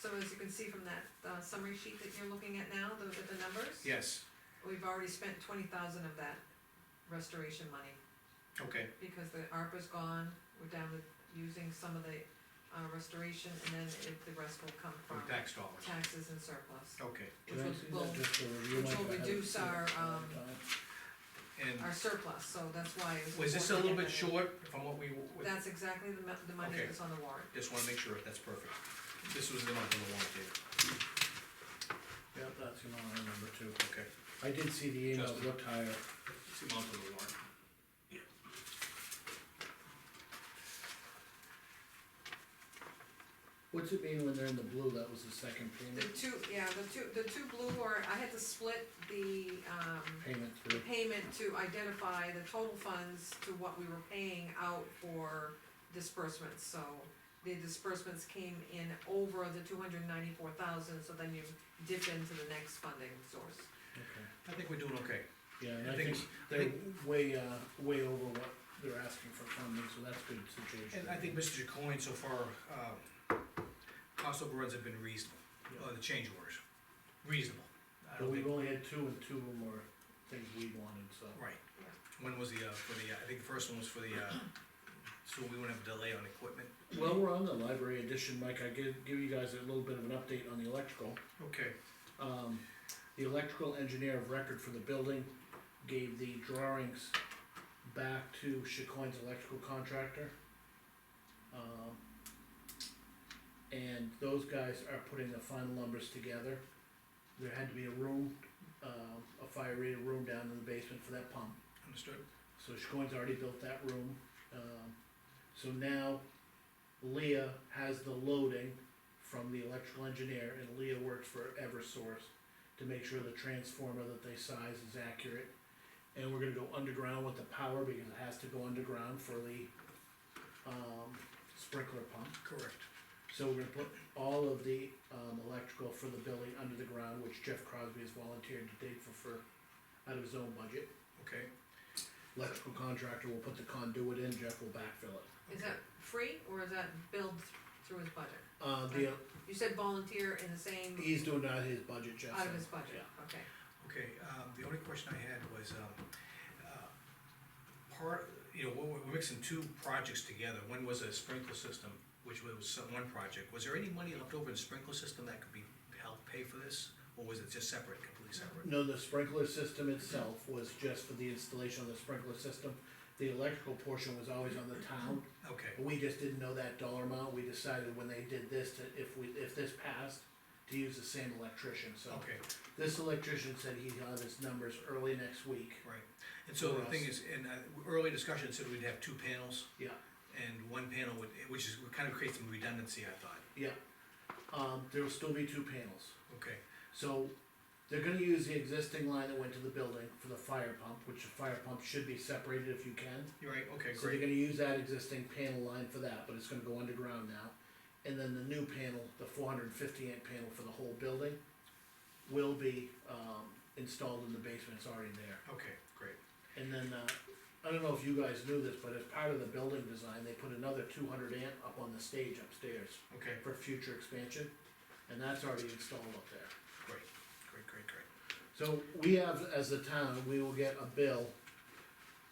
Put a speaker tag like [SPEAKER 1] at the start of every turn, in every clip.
[SPEAKER 1] so as you can see from that uh, summary sheet that you're looking at now, the, with the numbers.
[SPEAKER 2] Yes,
[SPEAKER 1] We've already spent twenty thousand of that restoration money,
[SPEAKER 2] okay,
[SPEAKER 1] because the ARPA's gone, we're down with using some of the, uh, restoration, and then it- the rest will come from
[SPEAKER 2] from tax dollars,
[SPEAKER 1] taxes and surplus.
[SPEAKER 2] okay.
[SPEAKER 1] Which
[SPEAKER 3] Can I
[SPEAKER 1] will,
[SPEAKER 3] see that
[SPEAKER 1] will-
[SPEAKER 3] just uh, for review?
[SPEAKER 1] which
[SPEAKER 3] Like,
[SPEAKER 1] will
[SPEAKER 3] I haven't
[SPEAKER 1] reduce
[SPEAKER 3] seen it
[SPEAKER 1] our,
[SPEAKER 3] for a long
[SPEAKER 1] um,
[SPEAKER 3] time.
[SPEAKER 2] And
[SPEAKER 1] our surplus, so that's why it
[SPEAKER 2] was
[SPEAKER 1] was.
[SPEAKER 2] this a
[SPEAKER 1] important
[SPEAKER 2] little
[SPEAKER 1] to
[SPEAKER 2] bit
[SPEAKER 1] get
[SPEAKER 2] short from what we,
[SPEAKER 1] that in. That's exactly the, mo- the money
[SPEAKER 2] Okay.
[SPEAKER 1] that's on the warrant.
[SPEAKER 2] just wanna make sure, that's perfect. This was the number on the warrant, David,
[SPEAKER 3] Yeah, that's the one I remember too.
[SPEAKER 2] okay.
[SPEAKER 3] I did see the emails
[SPEAKER 2] Justin.
[SPEAKER 3] looked higher.
[SPEAKER 2] It's the amount on the warrant.
[SPEAKER 3] What's it mean when they're in the blue? That was the second
[SPEAKER 1] The
[SPEAKER 3] payment,
[SPEAKER 1] two, yeah, the two, the two blue are, I had to split the, um,
[SPEAKER 3] payment
[SPEAKER 1] the
[SPEAKER 3] through.
[SPEAKER 1] payment to identify the total funds to what we were paying out for disbursements, so the disbursements came in over the two hundred ninety-four thousand, so then you dip into the next funding source.
[SPEAKER 3] Okay.
[SPEAKER 2] I think we're doing okay.
[SPEAKER 3] Yeah, and
[SPEAKER 2] I
[SPEAKER 3] I
[SPEAKER 2] think-
[SPEAKER 3] think
[SPEAKER 2] I
[SPEAKER 3] they're way, uh, way over what they're asking for funding, so that's good situation.
[SPEAKER 2] And I think Mr. Coyne, so far, um, cost overruns have been reasonable, uh, the change orders, reasonable. I
[SPEAKER 3] But
[SPEAKER 2] don't
[SPEAKER 3] we've
[SPEAKER 2] think,
[SPEAKER 3] only had two and two of them were things we wanted, so.
[SPEAKER 2] right. One was the, uh, for the, uh, I think the first one was for the, uh, so we wouldn't have a delay on equipment.
[SPEAKER 3] Well, we're on the library edition, Mike, I give, give you guys a little bit of an update on the electrical.
[SPEAKER 2] Okay.
[SPEAKER 3] Um, the electrical engineer of record for the building gave the drawings back to Chicoine's electrical contractor. Um, and those guys are putting the final numbers together. There had to be a room, uh, a fire rated room down in the basement for that pump.
[SPEAKER 2] Understood?
[SPEAKER 3] So Chicoine's already built that room, um, so now Leah has the loading from the electrical engineer, and Leah works for Eversource to make sure the transformer that they size is accurate. And we're gonna go underground with the power, because it has to go underground for the, um, sprinkler pump.
[SPEAKER 2] Correct.
[SPEAKER 3] So we're gonna put all of the, um, electrical for the building under the ground, which Jeff Crosby has volunteered to dig for, for, out of his own budget
[SPEAKER 2] Okay.
[SPEAKER 3] electrical contractor will put the conduit in, Jeff will backfill it.
[SPEAKER 1] Is that free, or is that billed through his budget?
[SPEAKER 3] Uh, the,
[SPEAKER 1] You said volunteer in the same,
[SPEAKER 3] he's doing it out of his budget, Jeff.
[SPEAKER 1] out of his
[SPEAKER 3] said.
[SPEAKER 1] budget, okay.
[SPEAKER 2] Okay, um, the only question I had was, um, uh, part, you know, we're, we're mixing two projects together, one was a sprinkler system, which was some- one project, was there any money left over in the sprinkler system that could be, help pay for this? Or was it just separate, completely separate?
[SPEAKER 3] No, the sprinkler system itself was just for the installation of the sprinkler system. The electrical portion was always on the town,
[SPEAKER 2] Okay,
[SPEAKER 3] but we just didn't know that dollar amount, we decided when they did this, to, if we, if this passed, to use the same electrician, so.
[SPEAKER 2] okay,
[SPEAKER 3] This electrician said he had his numbers early next week,
[SPEAKER 2] right, and so the thing is, in, uh, early discussion said we'd have two panels,
[SPEAKER 3] yeah.
[SPEAKER 2] and one panel would, which is, would kind of create some redundancy, I thought,
[SPEAKER 3] Yeah, um, there'll still be two panels.
[SPEAKER 2] okay,
[SPEAKER 3] So they're gonna use the existing line that went to the building for the fire pump, which the fire pump should be separated if you can.
[SPEAKER 2] you're right, okay,
[SPEAKER 3] So they're
[SPEAKER 2] great,
[SPEAKER 3] gonna use that existing panel line for that, but it's gonna go underground now. And then the new panel, the four hundred and fifty amp panel for the whole building, will be, um, installed in the basement, it's already there.
[SPEAKER 2] okay, great,
[SPEAKER 3] And then, uh, I don't know if you guys knew this, but as part of the building design, they put another two hundred amp up on the stage upstairs
[SPEAKER 2] okay,
[SPEAKER 3] for future expansion, and that's already installed up there.
[SPEAKER 2] great, great, great, great.
[SPEAKER 3] So we have, as a town, we will get a bill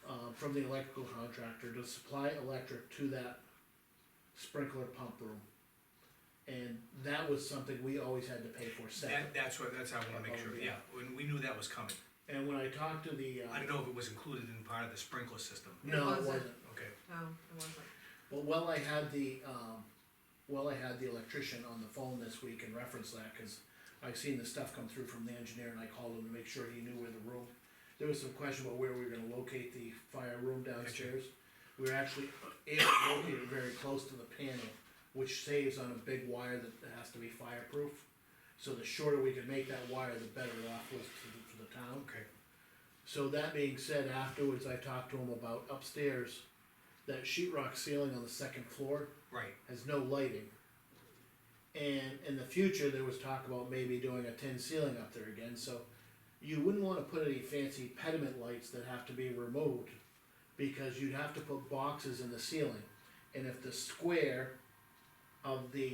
[SPEAKER 3] uh, from the electrical contractor to supply electric to that sprinkler pump room. And that was something we always had to pay for
[SPEAKER 2] That,
[SPEAKER 3] separate.
[SPEAKER 2] that's what, that's how I wanna make sure, yeah, when, we knew that was coming,
[SPEAKER 3] And when I talked to the,
[SPEAKER 2] I
[SPEAKER 3] uh,
[SPEAKER 2] don't know if it was included in part of the sprinkler system,
[SPEAKER 3] no, it
[SPEAKER 1] Wasn't.
[SPEAKER 3] wasn't.
[SPEAKER 2] okay,
[SPEAKER 1] No, it wasn't.
[SPEAKER 3] But while I had the, um, while I had the electrician on the phone this week and referenced that, cause I've seen the stuff come through from the engineer and I called him to make sure he knew where the room. There was some question about where we were gonna locate the fire room downstairs. We were actually able to locate it very close to the panel, which saves on a big wire that has to be fireproof. So the shorter we could make that wire, the better off was to, the- for the town.
[SPEAKER 2] okay,
[SPEAKER 3] So that being said, afterwards I talked to him about upstairs, that sheetrock ceiling on the second floor
[SPEAKER 2] right,
[SPEAKER 3] has no lighting. And in the future, there was talk about maybe doing a tin ceiling up there again, so you wouldn't wanna put any fancy pediment lights that have to be removed. Because you'd have to put boxes in the ceiling, and if the square of the